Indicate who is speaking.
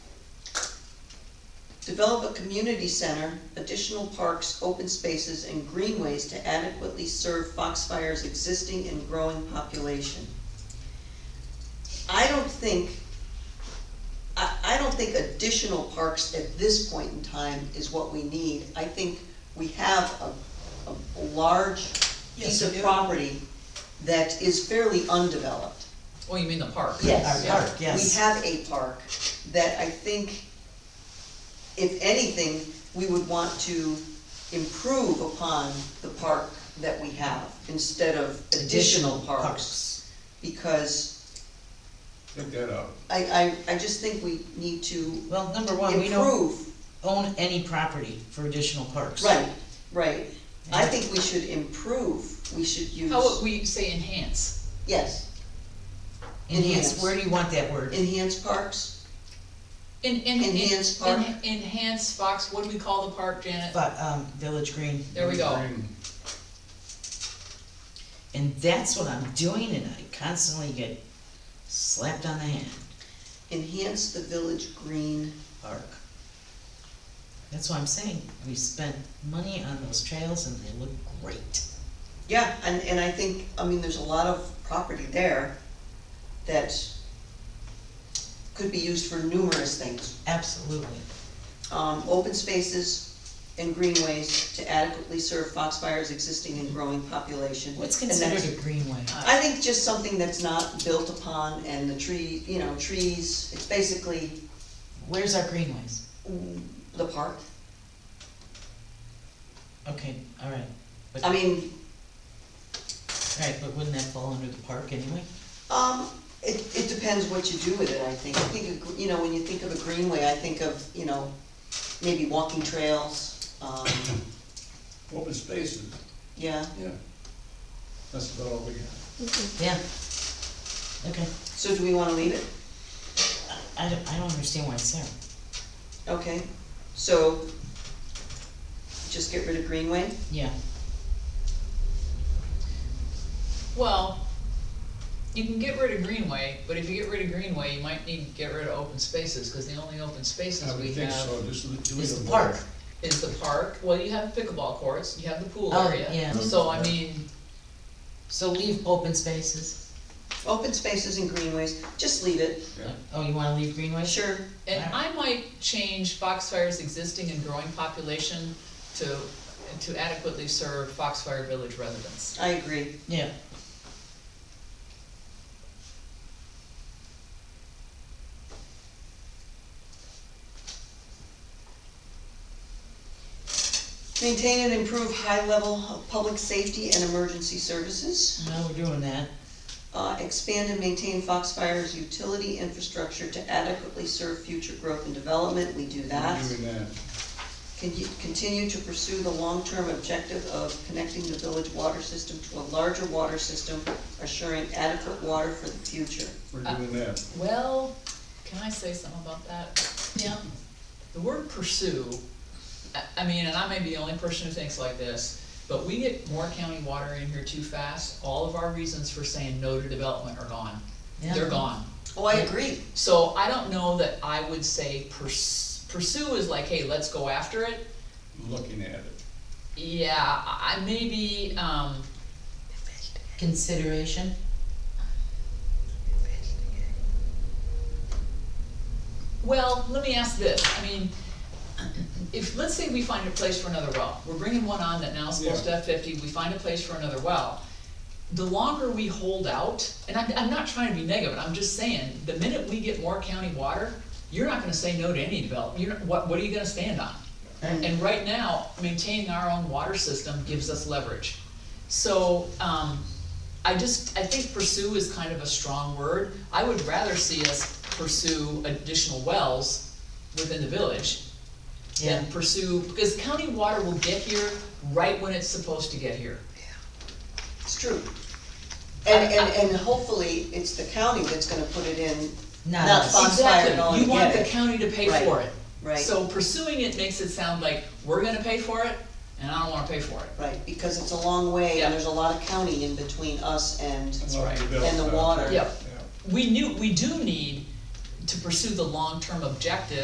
Speaker 1: Develop a community center, additional parks, open spaces, and greenways to adequately serve Foxfire's existing and growing population. I don't think, I, I don't think additional parks at this point in time is what we need. I think we have a, a large
Speaker 2: Yes,
Speaker 1: piece
Speaker 2: we
Speaker 1: of
Speaker 2: do.
Speaker 1: property that is fairly undeveloped.
Speaker 3: Oh, you mean the park?
Speaker 1: Yes.
Speaker 3: Yeah.
Speaker 2: Our park, yes.
Speaker 1: We have a park that I think, if anything, we would want to improve upon the park that we have instead of additional parks. Because
Speaker 4: Take that out.
Speaker 1: I, I, I just think we need to
Speaker 2: Well, number one, we don't
Speaker 1: improve.
Speaker 2: own any property for additional parks.
Speaker 1: Right, right. I think we should improve. We should use,
Speaker 3: How would we say enhance?
Speaker 1: yes,
Speaker 2: Enhance, where do you want that word?
Speaker 1: enhance parks,
Speaker 3: En- en- en-
Speaker 1: Enhance park.
Speaker 3: en- Enhance Fox, what do we call the park, Janet?
Speaker 2: But, um, Village Green,
Speaker 3: There we go.
Speaker 4: Green.
Speaker 2: and that's what I'm doing and I constantly get slapped on the hand,
Speaker 1: enhance the village green.
Speaker 2: park. That's what I'm saying, we spent money on those trails and they look great.
Speaker 1: Yeah, and, and I think, I mean, there's a lot of property there that could be used for numerous things.
Speaker 2: Absolutely.
Speaker 1: Um, open spaces and greenways to adequately serve Foxfire's existing and growing population.
Speaker 2: What's
Speaker 1: And
Speaker 2: considered
Speaker 1: that's-
Speaker 2: a greenway?
Speaker 1: I think just something that's not built upon and the tree, you know, trees, it's basically
Speaker 2: Where's our greenways?
Speaker 1: mm, the park.
Speaker 2: Okay, all right,
Speaker 1: I mean,
Speaker 2: all right, but wouldn't that fall under the park anyway?
Speaker 1: Um, it, it depends what you do with it, I think. I think, a gr- you know, when you think of a greenway, I think of, you know, maybe walking trails, um,
Speaker 4: Open spaces,
Speaker 1: yeah.
Speaker 4: yeah. That's about all we got.
Speaker 2: Yeah. Okay,
Speaker 1: So do we wanna leave it?
Speaker 2: I don't, I don't understand why it's there.
Speaker 1: Okay, so just get rid of greenway?
Speaker 2: Yeah,
Speaker 3: Well, you can get rid of Greenway, but if you get rid of Greenway, you might need to get rid of open spaces, cause the only open spaces
Speaker 4: I
Speaker 3: we
Speaker 4: would think
Speaker 3: have
Speaker 4: so, just leave
Speaker 2: it's
Speaker 4: it
Speaker 2: the
Speaker 4: alone.
Speaker 2: park.
Speaker 3: is the park. Well, you have pickleball courts, you have the pool
Speaker 2: Oh,
Speaker 3: area.
Speaker 2: yeah.
Speaker 3: So I mean,
Speaker 2: So leave open spaces.
Speaker 1: Open spaces and greenways, just leave it.
Speaker 4: Yeah.
Speaker 2: Oh, you wanna leave greenways?
Speaker 1: Sure,
Speaker 3: and I might change Foxfire's existing and growing population to, to adequately serve Foxfire Village residents.
Speaker 1: I agree.
Speaker 2: Yeah.
Speaker 1: Maintain and improve high level of public safety and emergency services.
Speaker 2: No, we're doing that.
Speaker 1: Uh, expand and maintain Foxfire's utility infrastructure to adequately serve future growth and development, we do that.
Speaker 4: We're Doing that.
Speaker 1: Can you continue to pursue the long-term objective of connecting the village water system to a larger water system, assuring adequate water for the future?
Speaker 4: We're doing that.
Speaker 3: Well, can I say something about that?
Speaker 2: Yeah.
Speaker 3: The word pursue, I, I mean, and I may be the only person who thinks like this, but we get more county water in here too fast. All of our reasons for saying no to development are gone. They're gone.
Speaker 1: Oh, I agree.
Speaker 3: So I don't know that I would say purs- pursue is like, hey, let's go after it.
Speaker 4: Looking at it.
Speaker 3: Yeah, I I maybe, um,
Speaker 2: Consideration,
Speaker 3: well, let me ask this, I mean, if, let's say we find a place for another well, we're bringing one on that now is supposed to have fifty, we find a place for another well. The longer we hold out, and I'm, I'm not trying to be negative, I'm just saying, the minute we get more county water, you're not gonna say no to any development, you're, not- what, what are you gonna stand on? And right now, maintaining our own water system gives us leverage. So, um, I just, I think pursue is kind of a strong word. I would rather see us pursue additional wells within the village
Speaker 2: yeah.
Speaker 3: than pursue, because county water will get here right when it's supposed to get here.
Speaker 1: It's true. And, and, and hopefully, it's the county that's gonna put it in,
Speaker 2: Not
Speaker 1: Not
Speaker 2: us.
Speaker 1: fun. Foxfire
Speaker 3: Exactly.
Speaker 1: don't
Speaker 3: You
Speaker 1: get
Speaker 3: want the
Speaker 1: it.
Speaker 3: county to pay
Speaker 1: Right.
Speaker 3: for it.
Speaker 1: right?
Speaker 3: So pursuing it makes it sound like we're gonna pay for it, and I don't wanna pay for it.
Speaker 1: Right, because it's a long way,
Speaker 3: Yeah.
Speaker 1: and there's a lot of county in between us and,
Speaker 3: That's right.
Speaker 1: And the water.
Speaker 3: Yep. We knew, we do need to pursue the long-term objective